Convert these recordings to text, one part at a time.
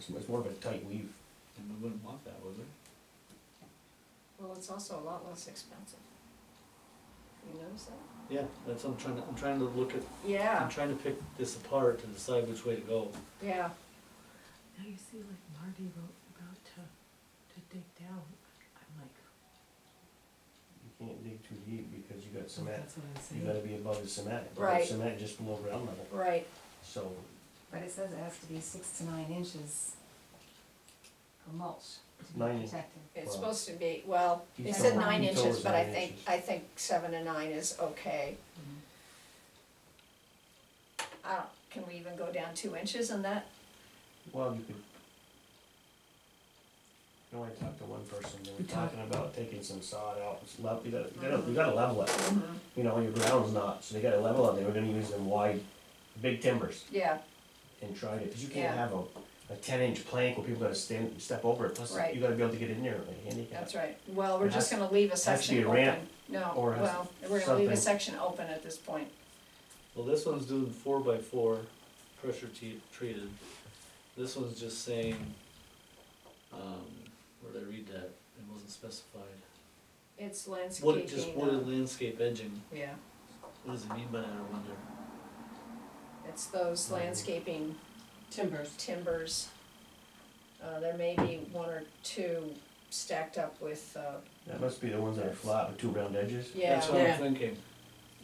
So It's more of a tight weave. Then we wouldn't want that, would we? Well, it's also a lot less expensive. You notice that? Yeah, that's, I'm trying to, I'm trying to look at, I'm Yeah, trying to pick this apart to decide which way to go. yeah, Now you see, like Marty wrote about to, to dig down, I'm like, You can't dig too deep because you got so cement. that's what I'm You saying. gotta be above the cement. Above the Right. Cement just below ground level, right, so But it says it has to be six to nine inches of mulch to be Nine. protected. it's Well, supposed to be, well, he it told- said nine he told inches, us but I nine think, inches. I think seven and nine is okay. I don't, can we even go down two inches in that? Well, you could. You know, I talked to one person, they We were talked- talking about taking some sod out, it's level, you gotta, you Mm-hmm. gotta, you gotta level it, you know, your ground's not, so they gotta level it, they were gonna use them wide, big timbers Yeah, and try to, cause you Yeah. can't have a, a ten inch plank where people gotta stand, step over it, plus Right. you gotta be able to get in there like handicap. that's right. Well, we're It just has- gonna leave to a be section a open. ramp No, or has well, we're gonna leave something. a section open at this point. Well, this one's doing four by four, pressure te- treated. This one's just saying, um, where did I read that? It wasn't specified. It's What, just landscaping, wooded uh, landscape edging, yeah, what does it mean by that, I wonder? it's those Mhm. landscaping Timbers. timbers. Uh, there may be one or two stacked up with, uh, That must be the ones that are flat with two round edges. yeah, That's what I'm Yeah. thinking.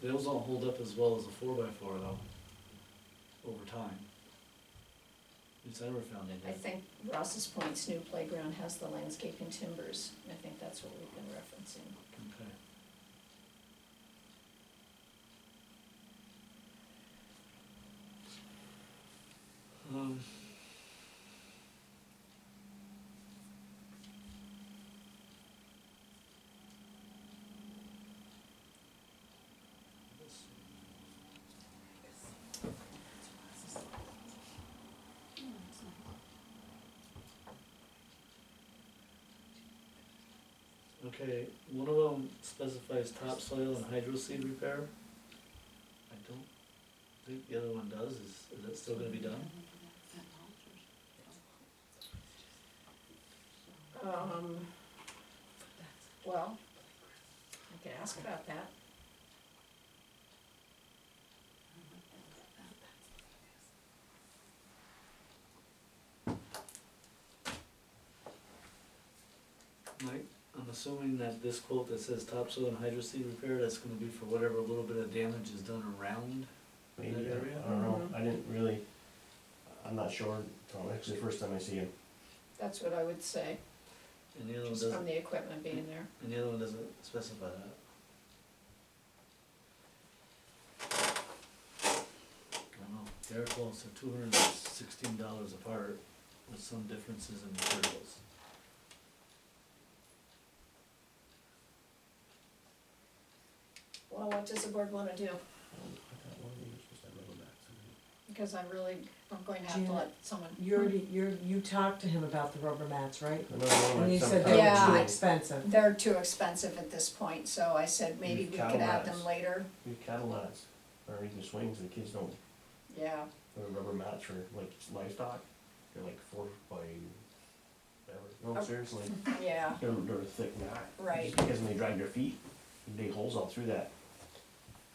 Those don't hold up as well as a four by four though, over time. At least I never found any. I think Ross's Point's new playground has the landscaping timbers, and I think that's what we've been referencing. Okay. Um, Okay, one of them specifies topsoil and hydro seed repair. I don't think the other one does, is, is that still gonna be done? Um, well, I could ask about that. Mike, I'm assuming that this quote that says topsoil and hydro seed repair, that's gonna be for whatever little bit of damage is done around. Maybe, That area? Uh-huh. I don't know, Mhm. I didn't really, I'm not sure, Tom, it's the first time I see him. That's what I would say, And the other one just doesn't, from the equipment being there. and the other one doesn't specify that. I don't know, they're close, they're two hundred and sixteen dollars apart with some differences in materials. Well, what does the board wanna do? Um, Because I really, I'm going to have to let someone. You already, you're, you talked to him about the rubber mats, right? Another one And you that's said sometime they Yeah, were too I- between- expensive. They're too expensive at this point, so I said maybe Use we could add them Cadillacs. later, These cattle mats, or even swings, the kids don't, yeah. they're rubber mats for like livestock, they're like four by, whatever, no, Oh. seriously, Yeah, they're, they're a thick mat. Right. Just Because when they drag their feet, they dig holes all through that,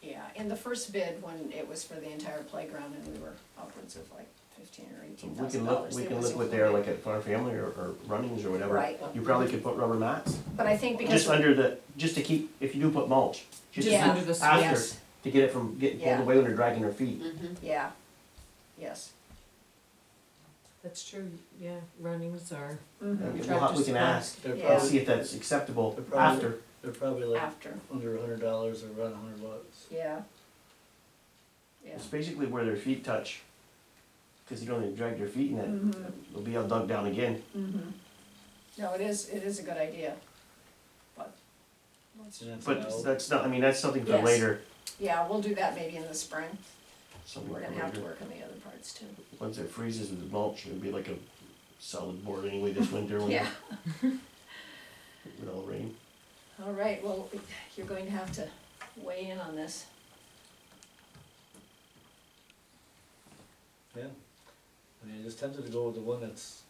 yeah, in the first bid, when it was for the entire playground, and we were upwards of like fifteen or so eighteen we thousand can look, dollars. we can look what they're like at Farm Family or, or Runnings or whatever. Right. You probably could put rubber mats, But I think because, just under the, just to keep, if you do put mulch, just to Yeah. keep Under the after, to get it from getting pulled Yeah. away when they're dragging their feet. yeah, yes. That's true, yeah, runnings are. Mhm. Okay, We'll have, we can ask, They're Yeah. and probably, see if that's acceptable They're probably- after. they're probably like After, under a hundred dollars or around a hundred bucks. yeah. Yeah, It's basically where their feet touch, because you don't even drag their feet in it. They'll be all dug down again. mhm. Mm-hmm. No, it is, it is a good idea, but, let's- And that's But about- that's not, I mean, that's something for Yes. later. yeah, we'll do that maybe in the spring. Something We're for gonna have to later. work on the other parts too. Once it freezes with mulch, it'll be like a solid board anyway this winter when, Yeah. with all the rain. All right, well, you're going to have to weigh in on this. Yeah, I mean, I just tempted to go with the one that's